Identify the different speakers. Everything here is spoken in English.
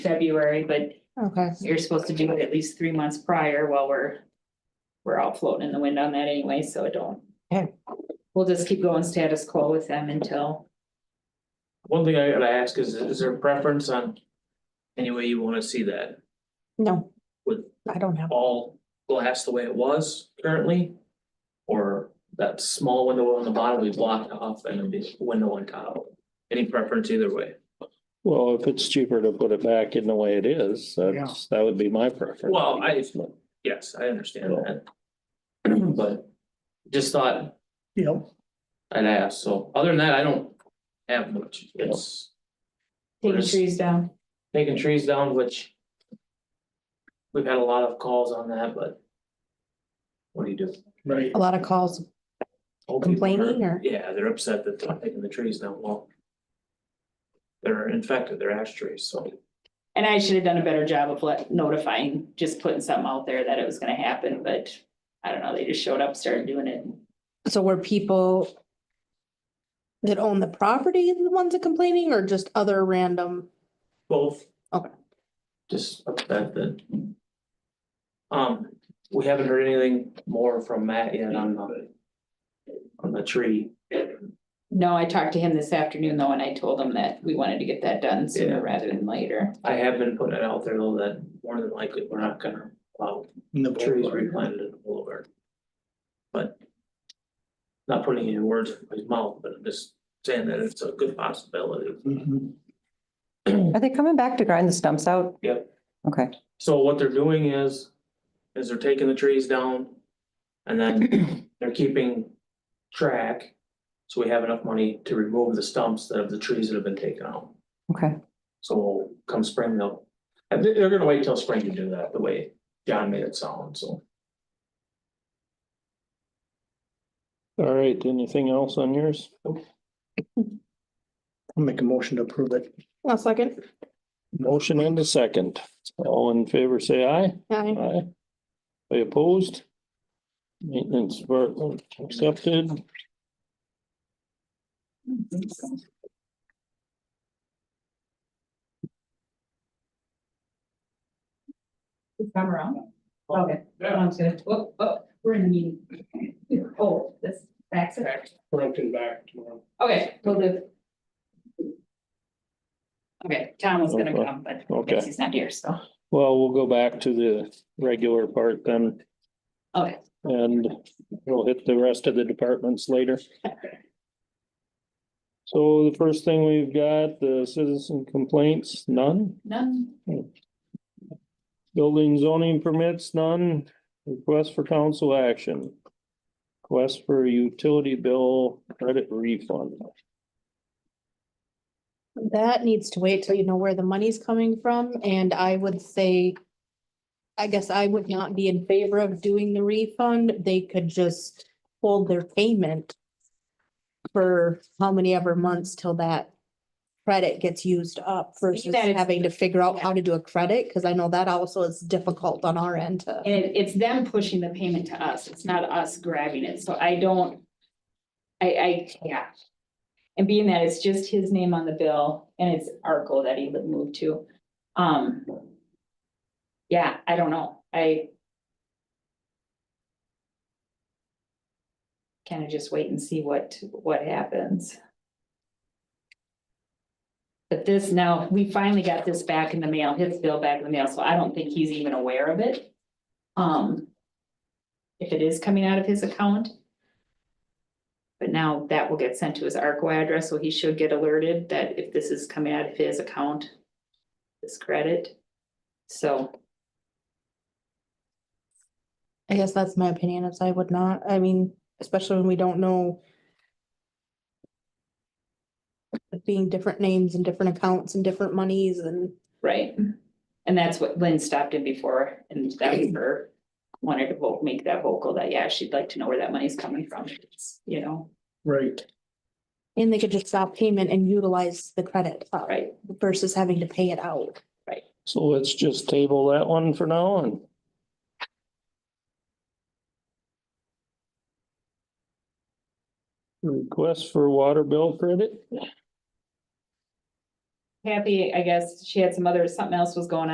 Speaker 1: February, but
Speaker 2: Okay,
Speaker 1: you're supposed to do it at least three months prior while we're. We're all floating in the wind on that anyway, so it don't.
Speaker 2: Okay.
Speaker 1: We'll just keep going status quo with them until,
Speaker 3: One thing I gotta ask is, is there a preference on any way you wanna see that?
Speaker 2: no.
Speaker 3: Would-
Speaker 2: I don't have,
Speaker 3: All glass the way it was currently? Or that small window on the bottom we blocked off and a big window on top? Any preference either way?
Speaker 4: Well, if it's cheaper to put it back in the way it is, that's, that would be my preference.
Speaker 3: Well, I, yes, I understand that. But just thought
Speaker 5: Yep,
Speaker 3: I'd ask, so other than that, I don't have much. It's
Speaker 1: taking
Speaker 3: Yes.
Speaker 1: trees down.
Speaker 3: taking trees down, which we've had a lot of calls on that, but what do you do?
Speaker 5: right.
Speaker 2: a lot of calls,
Speaker 3: Hopefully they're-
Speaker 2: Complaining or-
Speaker 3: Yeah, they're upset that they're taking the trees down, well. They're infected, they're ash trees, so.
Speaker 1: And I should have done a better job of let notifying, just putting something out there that it was gonna happen, but I don't know, they just showed up, started doing it.
Speaker 2: so were people that own the property the ones that complaining or just other random?
Speaker 3: Both.
Speaker 2: Okay.
Speaker 3: Just upset that. Um, we haven't heard anything more from Matt yet on the. On the tree.
Speaker 1: No, I talked to him this afternoon though, and I told him that we wanted to get that done
Speaker 3: Yeah.
Speaker 1: sooner rather than later.
Speaker 3: I have been putting it out there though that more than likely we're not gonna allow
Speaker 5: in the
Speaker 3: trees
Speaker 5: boulevard.
Speaker 3: replanted in the boulevard. But. Not putting any words in his mouth, but I'm just saying that it's a good possibility.
Speaker 5: Mhm.
Speaker 6: Are they coming back to grind the stumps out?
Speaker 3: Yep.
Speaker 6: Okay,
Speaker 3: So what they're doing is, is they're taking the trees down. And then they're keeping track. So we have enough money to remove the stumps that of the trees that have been taken out.
Speaker 6: okay.
Speaker 3: So come spring, they'll, and they- they're gonna wait till spring to do that, the way John made it sound, so.
Speaker 4: All right, anything else on yours?
Speaker 5: I'll make a motion to approve it.
Speaker 2: One second.
Speaker 4: Motion and a second. All in favor, say aye.
Speaker 2: Hi.
Speaker 4: Aye. Are you opposed? Maintenance department accepted.
Speaker 1: Come around. Okay. I was gonna, oh, oh, we're in the meeting. Oh, this, that's it.
Speaker 5: Broken back tomorrow.
Speaker 1: Okay, we'll do. Okay, Tom was gonna come, but I guess
Speaker 4: Okay.
Speaker 1: he's not here, so.
Speaker 4: Well, we'll go back to the regular part then.
Speaker 1: Okay.
Speaker 4: And we'll hit the rest of the departments later. So the first thing we've got, the citizen complaints, none.
Speaker 1: None.
Speaker 4: Building zoning permits, none. Request for council action. Request for utility bill credit refund.
Speaker 2: That needs to wait till you know where the money's coming from, and I would say. I guess I would not be in favor of doing the refund, they could just hold their payment. For how many ever months till that credit gets used up versus
Speaker 1: it's-
Speaker 2: having to figure out how to do a credit, cause I know that also is difficult on our end to.
Speaker 1: And it- it's them pushing the payment to us. It's not us grabbing it, so I don't. I, I, yeah. And being that it's just his name on the bill and it's Arco that he li- moved to, um. Yeah, I don't know. I. Kind of just wait and see what, what happens. But this now, we finally got this back in the mail, his bill back in the mail, so I don't think he's even aware of it. Um. If it is coming out of his account. But now that will get sent to his ARCO address, so he should get alerted that if this is coming out of his account. This credit, so.
Speaker 2: I guess that's my opinion, is I would not, I mean, especially when we don't know. it Being different names and different accounts and different monies and,
Speaker 1: Right. And that's what Lynn stopped in before, and that was her, wanted to vote, make that vocal that, yeah, she'd like to know where that money's coming from, It's, you know,
Speaker 5: Right,
Speaker 2: and they could just stop payment and utilize the credit. uh,
Speaker 1: right?
Speaker 2: Versus having to pay it out.
Speaker 4: So let's just table that one for now and. Request for water bill credit.
Speaker 1: Kathy, I guess she had some other, something else was going on.